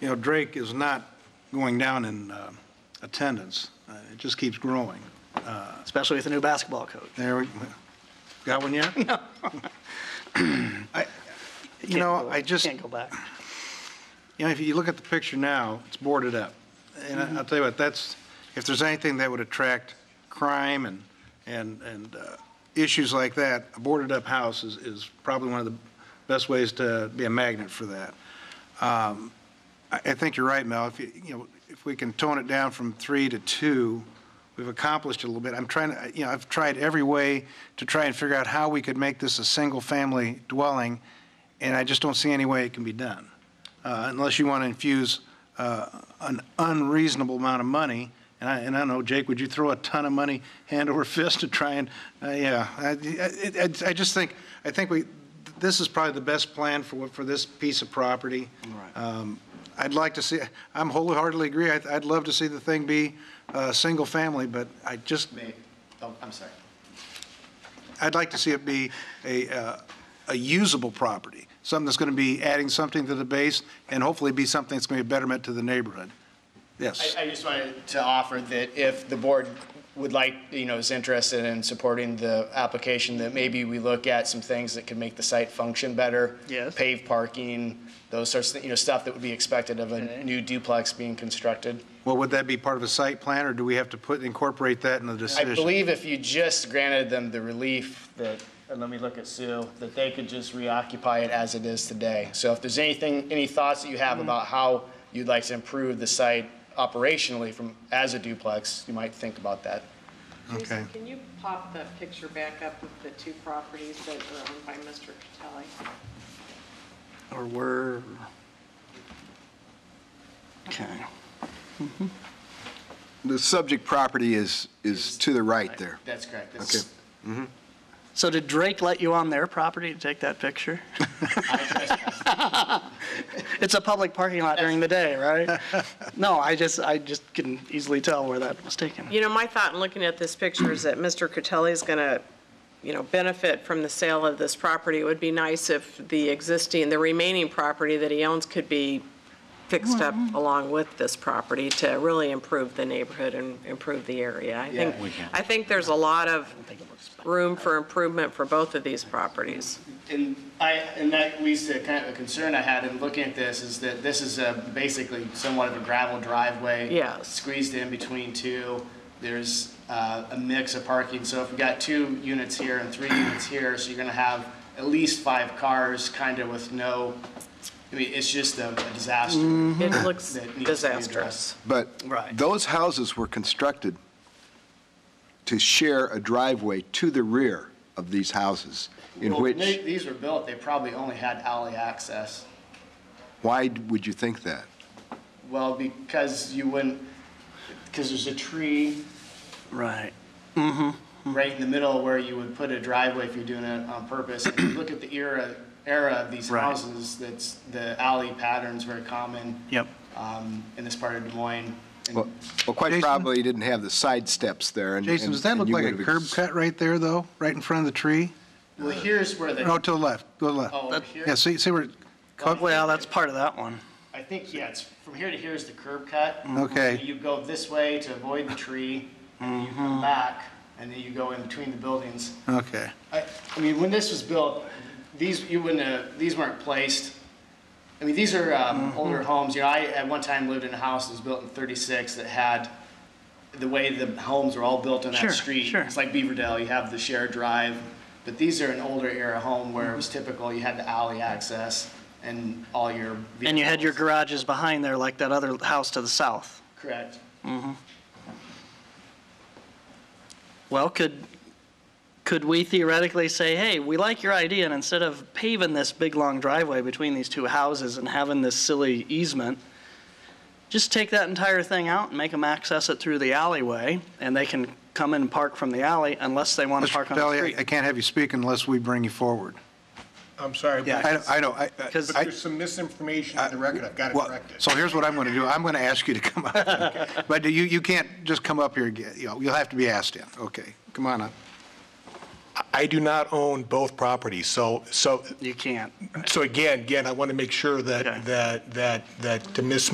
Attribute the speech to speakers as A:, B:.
A: you know, Drake is not going down in uh, attendance. Uh, It just keeps growing. Uh,
B: especially with the new basketball coach.
A: There, we got one yet? No. You know, I just,
B: Can't go back.
A: you know, if you look at the picture now, it's boarded up. And I-
B: Mm-hmm.
A: I'll tell you what, that's, if there's anything that would attract crime and, and, and uh, issues like that, a boarded-up house is, is probably one of the best ways to be a magnet for that. Um, I, I think you're right, Mel, if you, you know, if we can tone it down from three to two, we've accomplished a little bit. I'm trying to, you know, I've tried every way to try and figure out how we could make this a single-family dwelling, and I just don't see any way it can be done uh, unless you want to infuse uh, an unreasonable amount of money. And I, and I don't know, Jake, would you throw a ton of money hand over fist to try and, uh, yeah, I, I- I- I just think, I think we, this is probably the best plan for, what- for this piece of property. Um, I'd like to see, I'm wholeheartedly agree, I'd, I'd love to see the thing be uh, single-family, but I just,
C: May, oh, I'm sorry.
A: I'd like to see it be a, uh, a usable property, something that's going to be adding something to the base, and hopefully be something that's going to be a betterment to the neighborhood. Yes.
C: I, I just wanted to offer that if the board would like, you know, is interested in supporting the application, that maybe we look at some things that could make the site function better.
B: Yes.
C: Pave parking, those sorts of, thi- you know, stuff that would be expected of
B: Okay.
C: a new duplex being constructed.
A: Well, would that be part of a site plan, or do we have to put, incorporate that in the
C: I
A: decision?
C: believe if you just granted them the relief that, and Uh, let me look at Sue, that they could just reoccupy it as it is today. So if there's anything, any thoughts that you have about how you'd like to improve the site operationally from, as a duplex, you might think about that.
A: Okay.
D: Jason, can you pop the picture back up of the two properties that are owned by Mr. Catelli?
B: Or we're, okay.
E: The subject property is, is to the right there.
C: That's correct.
E: Okay.
B: So did Drake let you on their property to take that picture? It's a public parking lot during the day, right? No, I just, I just can easily tell where that was taken.
D: You know, my thought in looking at this picture is that Mr. Catelli's going to, you know, benefit from the sale of this property. It would be nice if the existing, the remaining property that he owns could be fixed up
C: Mm-hmm.
D: along with this property to really improve the neighborhood and improve the area. I think, I think there's a lot of room for improvement for both of these properties.
C: And I, and that leads to kind of a concern I had in looking at this, is that this is a, basically somewhat of a gravel driveway.
D: Yes.
C: Squeezed in between two, there's uh, a mix of parking, so if we got two units here and three units here, so you're gonna have at least five cars, kind of with no, I mean, it's just a a disaster.
D: It looks
C: Mm-hmm. That needs to be
D: disastrous.
C: addressed.
E: But
B: Right.
E: those houses were constructed to share a driveway to the rear of these houses, in
C: Well, when they-
E: which,
C: These were built, they probably only had alley access.
E: why would you think that?
C: Well, because you wouldn't, because there's a tree
B: Right.
C: right in the middle where you would put a driveway if you're doing it on purpose. If you look at the era, era of these
B: Right.
C: houses, that's, the alley pattern's very common
B: Yep.
C: um, in this part of Des Moines. And
E: Well, well, quite
A: Jason?
E: probably, you didn't have the side steps there, and...
A: Jason, does that
E: and-
A: look
E: and you
A: like a
E: would have
A: curb
E: ex-
A: cut right there, though, right in front of the tree?
C: Well, here's where
A: No,
C: the,
A: to the left, go to the left.
C: oh, over here,
A: Yeah, see, see where,
B: Well, that's part of that one.
C: I think, yeah, it's, from here to here is the curb cut.
A: Okay.
C: You go this way to avoid the tree, and you come back, and then you go in between the buildings.
A: okay.
C: I, I mean, when this was built, these, you wouldn't have, these weren't placed. I mean, these are
B: Mm-hmm.
C: um, older homes. You know, I at one time lived in a house that was built in 36 that had the way the homes were all built on that
B: Sure,
C: street.
B: sure.
C: It's like Beaverdale, you have the shared drive. But these are an older era home where it was
B: Mm-hmm.
C: typical you had the alley access and all your vehicles.
B: And you had your garages behind there like that other house to the south.
C: Correct.
B: Well, could, could we theoretically say, hey, we like your idea, and instead of paving this big, long driveway between these two houses and having this silly easement, just take that entire thing out and make them access it through the alleyway, and they can come in and park from the alley unless they want to
A: Mr.
B: park on the
A: Capelli, I- I
B: street?
A: can't have you speak unless we bring you forward.
F: I'm sorry,
A: I
F: but
A: don't- I don't, I- I-
B: Because-
F: but there's some misinformation in the record. I've got to
A: Well,
F: correct it.
A: So here's what I'm going to do. I'm going to ask you to come up. But you, you can't just come up here, and get- you know, you'll have to be asked in. Okay, come on up.
F: I do not own both properties, so, so,
B: You can't.
F: so again, again, I want to make sure
B: Okay.
F: that, that, that, that to Ms.